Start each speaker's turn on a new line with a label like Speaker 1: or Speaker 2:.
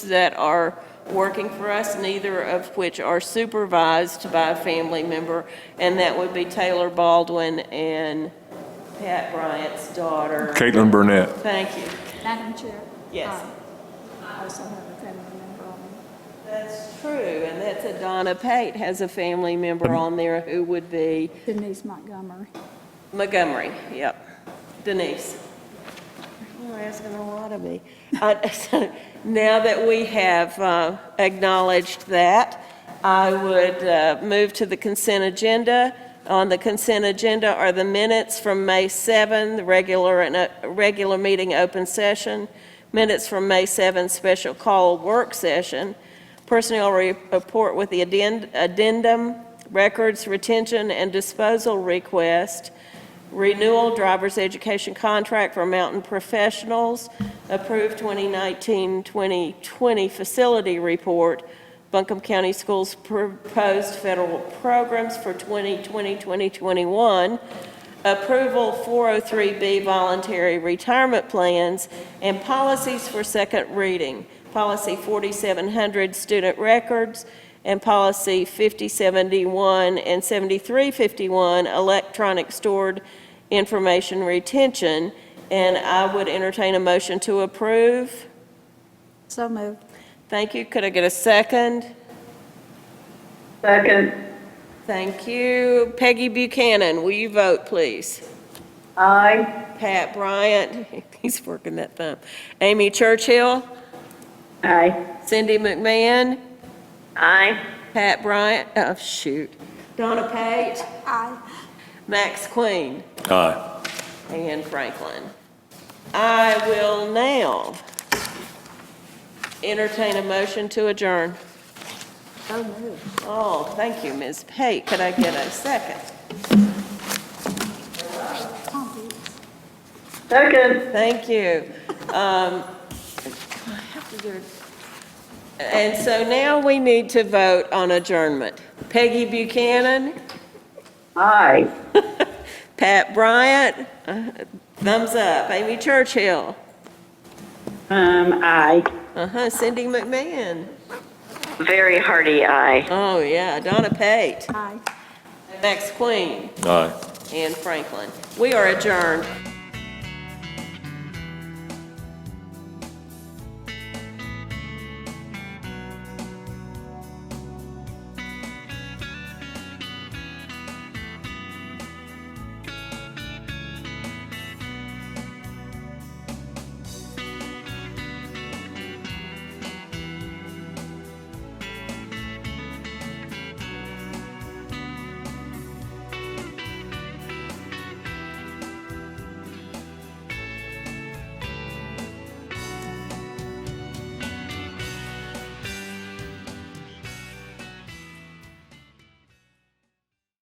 Speaker 1: that are working for us, neither of which are supervised by a family member, and that would be Taylor Baldwin and Pat Bryant's daughter.
Speaker 2: Caitlin Burnett.
Speaker 1: Thank you.
Speaker 3: Madam Chair?
Speaker 1: Yes.
Speaker 3: um, I also have a family member on
Speaker 1: That's true, and that's Adonna Pate has a family member on there who would be
Speaker 3: Denise Montgomery.
Speaker 1: Montgomery, yep. Denise. You're asking a lot of me. Uh, so Now that we have uh, acknowledged that, I would uh, move to the consent agenda. On the consent agenda are the minutes from May 7, the regular, and uh, regular meeting open session, minutes from May 7, special call work session, personnel re- report with the addend- addendum, records retention and disposal request, renewal driver's education contract for Mountain Professionals, approved 2019-2020 facility report, Buncombe County Schools proposed federal programs for 2020-2021, approval 403B voluntary retirement plans, and policies for second reading, policy 4700 student records, and policy 5071 and 7351, electronic stored information retention, and I would entertain a motion to approve.
Speaker 3: So moved.
Speaker 1: Thank you. Could I get a second?
Speaker 4: Second,
Speaker 1: Thank you. Peggy Buchanan, will you vote, please?
Speaker 4: aye.
Speaker 1: Pat Bryant, he's working that thumb. Amy Churchill,
Speaker 4: Aye.
Speaker 1: Cindy McMahon,
Speaker 4: Aye.
Speaker 1: Pat Bryant, oh, shoot. Donna Pate,
Speaker 3: Aye.
Speaker 1: Max Queen.
Speaker 2: Aye.
Speaker 1: and Franklin. I will now entertain a motion to adjourn.
Speaker 3: So moved.
Speaker 1: Oh, thank you, Ms. Pate. Could I get a second?
Speaker 3: Tom Peters.
Speaker 4: Second,
Speaker 1: Thank you. Um, And so now we need to vote on adjournment. Peggy Buchanan,
Speaker 4: aye.
Speaker 1: Pat Bryant, uh, thumbs up. Amy Churchill,
Speaker 4: Um, aye.
Speaker 1: uh-huh, Cindy McMahon.
Speaker 4: Very hearty aye.
Speaker 1: Oh, yeah, Donna Pate,
Speaker 3: Aye.
Speaker 1: Max Queen.
Speaker 2: Aye.
Speaker 1: and Franklin. We are adjourned.